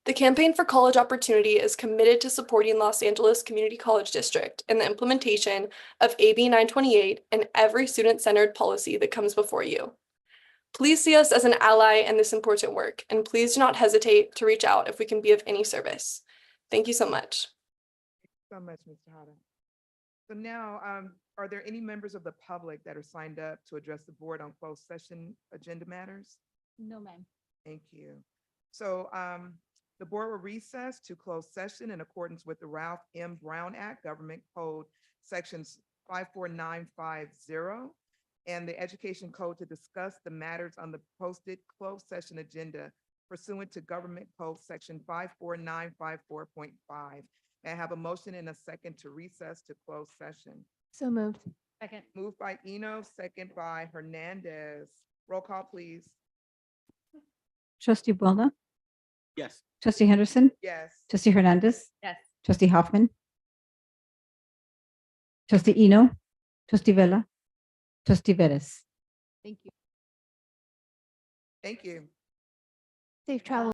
The Campaign for College Opportunity is committed to supporting Los Angeles Community College District in the implementation of AB 928 and every student-centered policy that comes before you. Please see us as an ally in this important work, and please do not hesitate to reach out if we can be of any service. Thank you so much. So much, Mr. Hata. So now, um, are there any members of the public that are signed up to address the board on closed session agenda matters? No, ma'am. Thank you. So um, the board will recess to close session in accordance with the Ralph M. Brown Act, Government Code, Sections 54950, and the Education Code to discuss the matters on the posted closed session agenda pursuant to Government Code, Section 54954.5. May I have a motion and a second to recess to close session? So moved. Second. Moved by Eno, second by Hernandez. Roll call, please. Trustee Boulna, Yes. trustee Henderson, Yes. trustee Hernandez, Yes. trustee Hoffman, trustee Eno, trustee Vella, trustee Vettis. Thank you. Thank you. Safe travel.